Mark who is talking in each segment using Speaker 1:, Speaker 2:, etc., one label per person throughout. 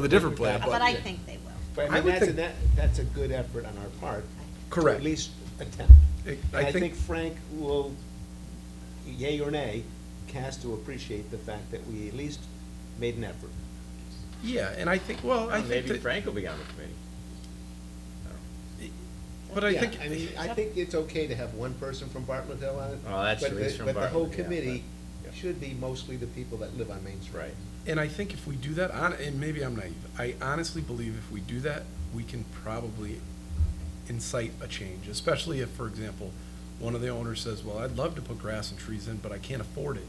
Speaker 1: with a different plan.
Speaker 2: But I think they will.
Speaker 3: But
Speaker 1: I
Speaker 3: I mean,
Speaker 1: would
Speaker 3: that's, a-
Speaker 1: think-
Speaker 3: that, that's a good effort on our part.
Speaker 1: Correct.
Speaker 3: To at least attempt.
Speaker 1: I-
Speaker 3: And
Speaker 1: I
Speaker 3: I
Speaker 1: think-
Speaker 3: think Frank will, yay or nay, has to appreciate the fact that we at least made an effort.
Speaker 1: Yeah, and I think, well, I think
Speaker 4: Maybe
Speaker 1: that,
Speaker 4: Frank will be on the committee.
Speaker 1: but I
Speaker 3: Yeah,
Speaker 1: think,
Speaker 3: I mean, I think it's okay to have one person from Bartlett Hill on it.
Speaker 4: Oh, that's
Speaker 3: but
Speaker 4: at
Speaker 3: the-
Speaker 4: least from
Speaker 3: But the whole
Speaker 4: Bartlett, yeah,
Speaker 3: committee
Speaker 4: but- yeah.
Speaker 3: should be mostly the people that live on Main Street.
Speaker 4: Right.
Speaker 1: and I think if we do that, hon- and maybe I'm naive, I honestly believe if we do that, we can probably incite a change, especially if, for example, one of the owners says, well, I'd love to put grass and trees in, but I can't afford it.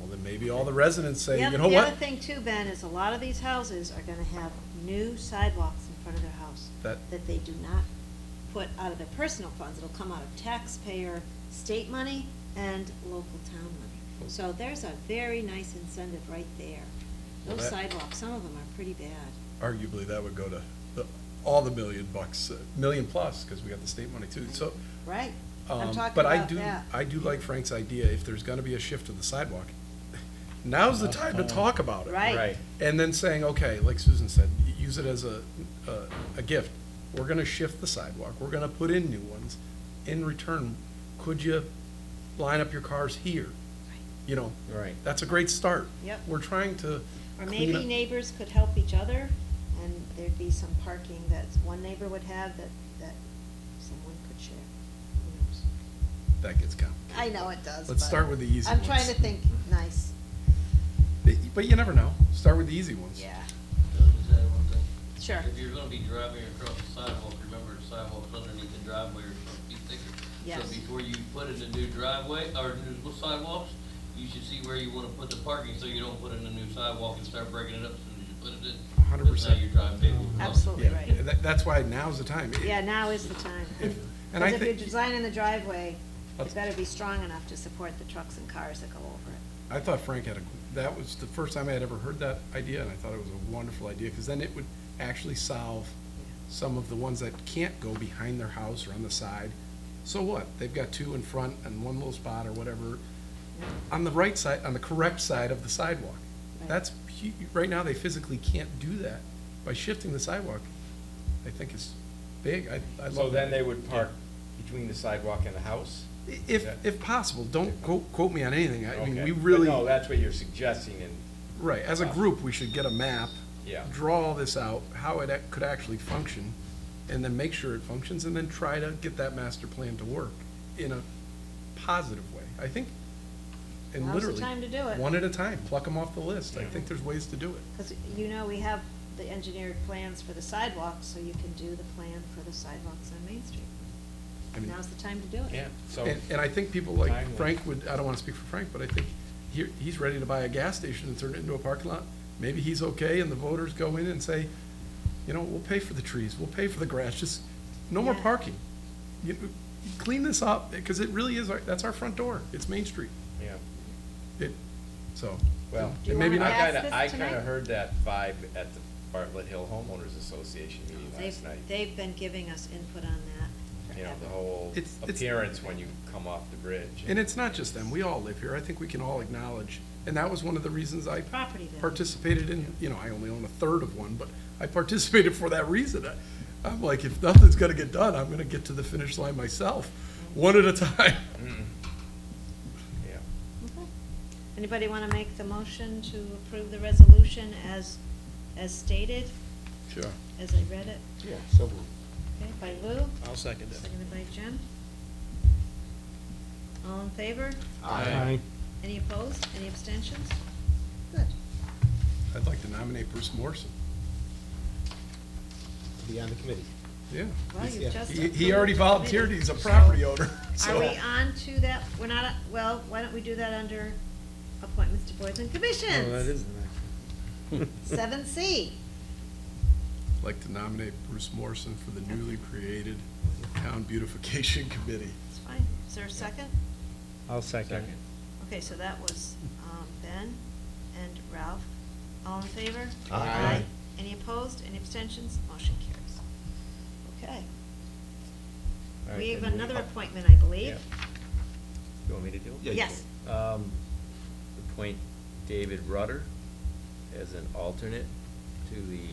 Speaker 1: Well, then maybe all the residents say,
Speaker 2: The
Speaker 1: you
Speaker 2: other-
Speaker 1: know
Speaker 2: The other
Speaker 1: what?
Speaker 2: thing too, Ben, is a lot of these houses are gonna have new sidewalks in front of their house
Speaker 1: That-
Speaker 2: that they do not put out of their personal funds. It'll come out of taxpayer, state money, and local town money. So there's a very nice incentive right there.
Speaker 1: Well,
Speaker 2: Those
Speaker 1: that-
Speaker 2: sidewalks, some of them are pretty bad.
Speaker 1: Arguably, that would go to the, all the million bucks, uh, million plus, because we got the state money too, so.
Speaker 2: Right, I'm
Speaker 1: Um,
Speaker 2: talking
Speaker 1: But I
Speaker 2: about
Speaker 1: do,
Speaker 2: that.
Speaker 1: I do like Frank's idea, if there's gonna be a shift of the sidewalk, now's the time to talk about it.
Speaker 2: Right.
Speaker 4: Right.
Speaker 1: And then saying, okay, like Susan said, y- use it as a, a, a gift. We're gonna shift the sidewalk, we're gonna put in new ones. In return, could you line up your cars here? You know?
Speaker 4: Right.
Speaker 1: That's a great start.
Speaker 2: Yep.
Speaker 1: We're trying to
Speaker 2: Or
Speaker 1: clean
Speaker 2: maybe
Speaker 1: up-
Speaker 2: neighbors could help each other, and there'd be some parking that one neighbor would have that, that someone could share. Who knows?
Speaker 1: That gets counted.
Speaker 2: I know it does.
Speaker 1: Let's
Speaker 2: but
Speaker 1: start with the easy
Speaker 2: I'm trying
Speaker 1: ones.
Speaker 2: to think nice,
Speaker 1: But you never know, start with the easy ones.
Speaker 2: yeah,
Speaker 5: Doug, is that one thing?
Speaker 2: sure.
Speaker 5: If you're gonna be driving across the sidewalk, remember the sidewalks underneath the driveway are supposed to be thicker.
Speaker 2: Yes.
Speaker 5: So before you put in a new driveway, or new sidewalks, you should see where you wanna put the parking, so you don't put in a new sidewalk and start breaking it up as soon as you put it
Speaker 1: 100%.
Speaker 5: in. Because now you're driving people.
Speaker 2: Absolutely
Speaker 1: Yeah,
Speaker 2: right.
Speaker 1: that, that's why now's the time.
Speaker 2: Yeah, now is the time.
Speaker 1: If- and I
Speaker 2: Because if you're
Speaker 1: think- Oh.
Speaker 2: designing the driveway,
Speaker 1: Let's-
Speaker 2: it better be strong enough to support the trucks and cars that go over it.
Speaker 1: I thought Frank had a, that was the first time I had ever heard that idea, and I thought it was a wonderful idea, because then it would actually solve some of the ones that can't go behind their house or on the side. So what? They've got two in front and one little spot or whatever, on the right side, on the correct side of the sidewalk.
Speaker 2: Right.
Speaker 1: That's, hu- right now, they physically can't do that. By shifting the sidewalk, I think is big. I, I love that.
Speaker 4: So then they would park between the sidewalk and the house?
Speaker 1: If, if possible, don't quote, quote me on anything. I mean, we really.
Speaker 4: No, that's what you're suggesting and,
Speaker 1: Right, as a group, we should get a map.
Speaker 4: Yeah.
Speaker 1: Draw all this out, how it ac- could actually function, and then make sure it functions, and then try to get that master plan to work in a positive way. I think, and
Speaker 2: Now's the
Speaker 1: literally.
Speaker 2: time to do it.
Speaker 1: One at a time, pluck them off the list. I think there's ways to do it.
Speaker 2: Because you know, we have the engineered plans for the sidewalks, so you can do the plan for the sidewalks on Main Street.
Speaker 1: I mean-
Speaker 2: Now's the time to do it.
Speaker 4: yeah, so,
Speaker 1: And, and I think people like
Speaker 4: Timely.
Speaker 1: Frank would, I don't wanna speak for Frank, but I think he, he's ready to buy a gas station and turn it into a parking lot. Maybe he's okay and the voters go in and say, you know, we'll pay for the trees, we'll pay for the grass, just no more
Speaker 2: Yeah.
Speaker 1: parking. You, clean this up, cause it really is, our that's our front door, it's Main Street,
Speaker 4: yeah,
Speaker 1: it, so.
Speaker 4: well.
Speaker 2: Do you
Speaker 1: and maybe
Speaker 2: wanna
Speaker 1: not-
Speaker 2: ask
Speaker 4: I kinda,
Speaker 2: this
Speaker 4: I kinda
Speaker 2: tonight?
Speaker 4: heard that vibe at the Bartlett Hill Homeowners Association meeting
Speaker 2: They've,
Speaker 4: last night.
Speaker 2: they've been giving us input on that
Speaker 4: You know,
Speaker 2: forever.
Speaker 4: the whole
Speaker 1: It's- it's-
Speaker 4: appearance when you come off the bridge.
Speaker 1: And it's not just them, we all live here, I think we can all acknowledge, and that was one of the reasons I
Speaker 2: Property value.
Speaker 1: participated in, you know, I only own a third of one, but I participated for that reason. I- I'm like, if nothing's gonna get done, I'm gonna get to the finish line myself, one at a time.
Speaker 4: Mm-hmm. Yeah.
Speaker 2: Okay. Anybody want to make the motion to approve the resolution as, as stated,
Speaker 1: Sure.
Speaker 2: as I read it?
Speaker 3: Yeah, so
Speaker 2: Okay, by Lou,
Speaker 3: I'll second
Speaker 2: seconded by Jim. All in favor? Any opposed? Any abstentions? Good.
Speaker 1: I'd like to nominate Bruce Morrison.
Speaker 3: Be on the committee.
Speaker 1: Yeah.
Speaker 2: Well, you've just
Speaker 1: He, he already
Speaker 2: approved the
Speaker 1: volunteered,
Speaker 2: committee.
Speaker 1: he's a property owner,
Speaker 2: Are
Speaker 1: so.
Speaker 2: we on to that, we're not, well, why don't we do that under appointments to boards and commissions? Seven C.
Speaker 1: I'd Like to nominate Bruce Morrison for the newly created Town Beautification Committee.
Speaker 2: It's fine. Is there a second?
Speaker 6: I'll second
Speaker 4: Second.
Speaker 2: Okay, so that was um, Ben and Ralph. All in favor?
Speaker 3: Aye.
Speaker 2: Any opposed, any abstentions? Motion carries. Okay.
Speaker 4: All right,
Speaker 2: We have
Speaker 4: then
Speaker 2: another
Speaker 4: oh,
Speaker 2: appointment, I believe.
Speaker 4: yeah. You want me to do it?
Speaker 3: Yeah, you
Speaker 2: Yes.
Speaker 4: Um, appoint David Rudder as an alternate to the